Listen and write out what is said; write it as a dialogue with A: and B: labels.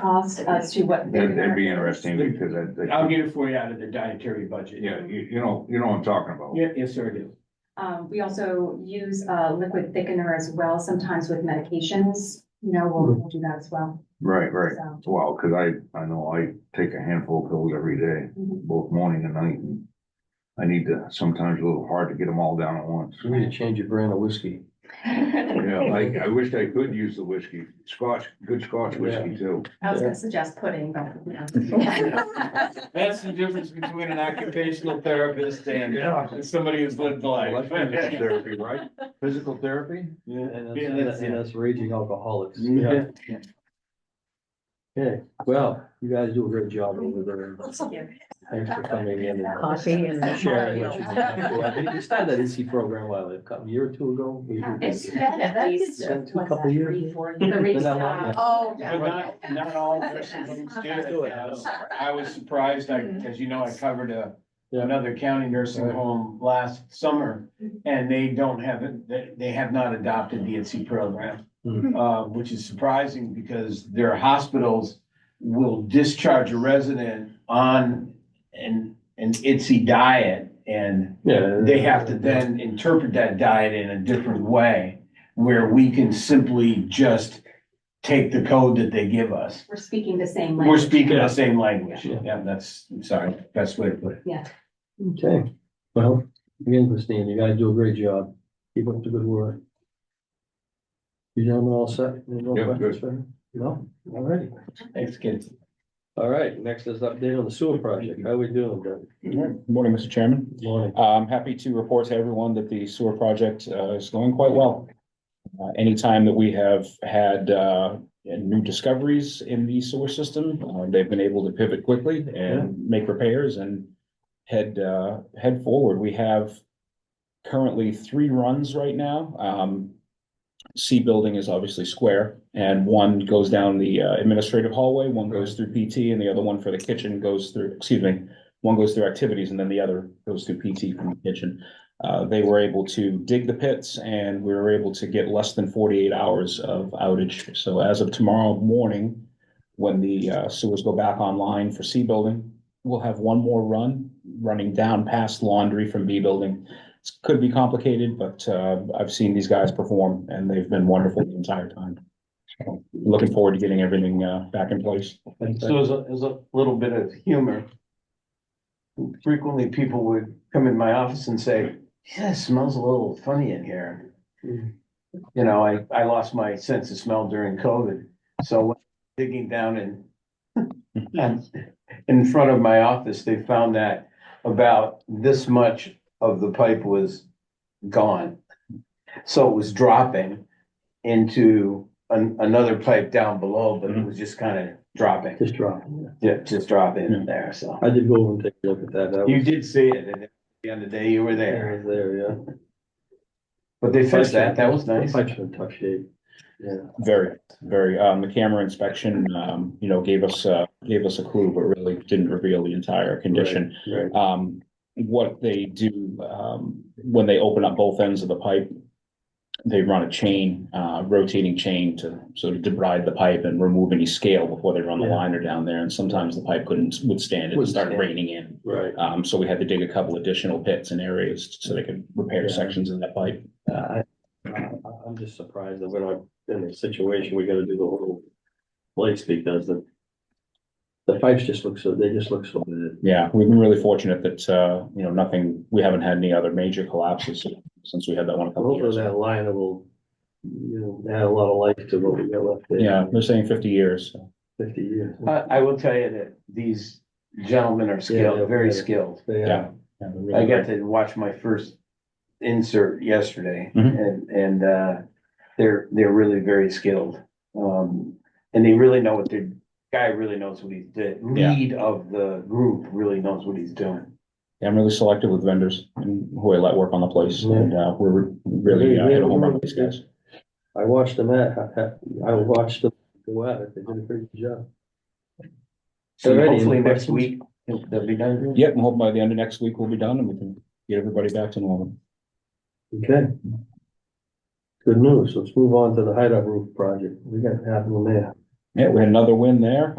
A: cost as to what?
B: That'd, that'd be interesting because I, I-
C: I'll get it for you out of the dietary budget.
B: yeah, you, you know, you know what I'm talking about.
C: Yeah, yes, sir, I do.
A: Um, we also use a liquid thickener as well, sometimes with medications, you know, we'll we'll do that as well,
B: Right, right.
A: so.
B: Well, cause I, I know I take a handful of pills every day,
C: Mm-hmm.
A: mhm.
B: both morning and night. and I need to, sometimes a little hard to get them all down at once.
D: So we need to change your brand of whiskey.
B: Yeah, I, I wish I could use the whiskey, Scotch, good Scotch whiskey too.
A: I was gonna suggest pudding, but, you know.
C: That's the difference between an occupational therapist and and somebody who's lived life.
B: Therapy, right?
D: Physical therapy? And that's,
C: Yeah, that's-
D: and that's- and that's raging alcoholics.
C: Yeah.
D: Okay, well, you guys do a great job over there.
A: Thank you.
D: Thanks for coming in. and
E: Coffee and.
D: Sharing what you did. You started that NC program, well, a year or two ago. maybe.
A: It's been at least,
D: It's been a
A: what's that,
D: couple years.
A: three, four years. The
D: Been that long, yeah.
A: reason- Oh,
C: But not, not all nursing homes do it. I was surprised, I, as you know, I covered a,
D: Yeah.
C: another county nursing home last summer. And they don't have, it. they, they have not adopted the NC program.
D: Hmm.
C: Uh, which is surprising because their hospitals will discharge a resident on an, an ITSE diet. And
D: Yeah.
C: they have to then interpret that diet in a different way, where we can simply just take the code that they give us.
A: We're speaking the same
C: We're
A: language.
C: speaking the same language.
D: Yeah.
C: Yeah, that's, I'm sorry, best way to put it.
D: Okay, well, again, Christine, you guys do a great job. Keep up the good work. You gentlemen all set? Any more
B: Yeah, good.
D: questions for him? No, all righty.
C: Thanks, kids.
D: All right, next is update on the sewer project. How we doing, Doug?
F: Morning, Mr. Chairman.
D: Good Morning.
F: Uh, I'm happy to report to everyone that the sewer project uh, is going quite well. Uh, Anytime that we have had uh, new discoveries in the sewer system, uh, they've been able to pivot quickly
D: Yeah.
F: and make repairs and head, uh, head forward. We have currently three runs right now. Um, C building is obviously square and one goes down the uh, administrative hallway, one goes through PT and the other one for the kitchen goes through, excuse me, one goes through activities and then the other goes through PT from the kitchen. Uh, they were able to dig the pits and we were able to get less than forty-eight hours of outage. So as of tomorrow morning, when the uh, sewers go back online for C building, we'll have one more run, running down past laundry from B building. It Could be complicated, but, uh, I've seen these guys perform and they've been wonderful the entire time. So, Looking forward to getting everything, uh, back in place.
C: So there's a, there's a little bit of humor. Frequently, people would come in my office and say, yeah, it smells a little funny in here.
D: Mm.
C: You know, I, I lost my sense of smell during COVID, so when digging down in and in front of my office, they found that about this much of the pipe was gone. So it was dropping into an, another pipe down below, but it was just kind of dropping.
D: Just dropping. yeah.
C: Yeah, just drop in there, so.
D: I did go over and take a look at that. That
C: You
D: was-
C: did see it, and at the end of the day, you were
D: that
C: there,
D: was There, yeah.
C: but they fixed that, that was nice.
D: Pipes are in tough shape. Yeah,
F: Very, very, um, the camera inspection, um, you know, gave us, uh, gave us a clue, but really didn't reveal the entire condition.
D: right.
F: Um, what they do, um, when they open up both ends of the pipe, they run a chain, uh, rotating chain to sort of debride the pipe and remove any scale before they run the
D: Yeah.
F: liner down there, and sometimes the pipe couldn't withstand it and
D: Wouldn't
F: start
D: stand.
F: raining in.
D: Right.
F: Um, so we had to dig a couple additional pits and areas so they could repair
D: Yeah.
F: sections of that pipe.
D: I, I, I'm just surprised that we're not in a situation, we gotta do the whole place because the. The pipes just look so, they just look so bad.
F: Yeah, we've been really fortunate that, uh, you know, nothing, we haven't had any other major collapses since we had that one a couple of
D: Hopefully
F: years. ago.
D: that liner will, you know, add a lot of life to what we got left there.
F: Yeah, they're saying fifty years. so.
D: Fifty years.
C: I, I will tell you that these gentlemen are skilled, very skilled.
D: Yeah,
F: Yeah. Yeah, they're
C: I
F: really
C: got
F: great.
C: to watch my first insert yesterday,
F: Mhm.
C: and, and, uh, they're, they're really very skilled. Um, and they really know what their, guy really knows what he's, the
F: Yeah.
C: lead of the group really knows what he's doing.
F: Yeah, I'm really selective with vendors and who I let work on the place and, uh, we're really, uh, hit a home run with these guys.
D: I watched them at, I, I watched them go at it, they did a great job.
C: So
D: Alrighty, any
C: hopefully next
D: questions?
C: week, they'll be done.
F: Yep, I'm hoping by the end of next week we'll be done and we can get everybody back to normal.
D: Okay. Good news, let's move on to the hideout roof project, we got half of them there.
F: Yeah, we had another win there.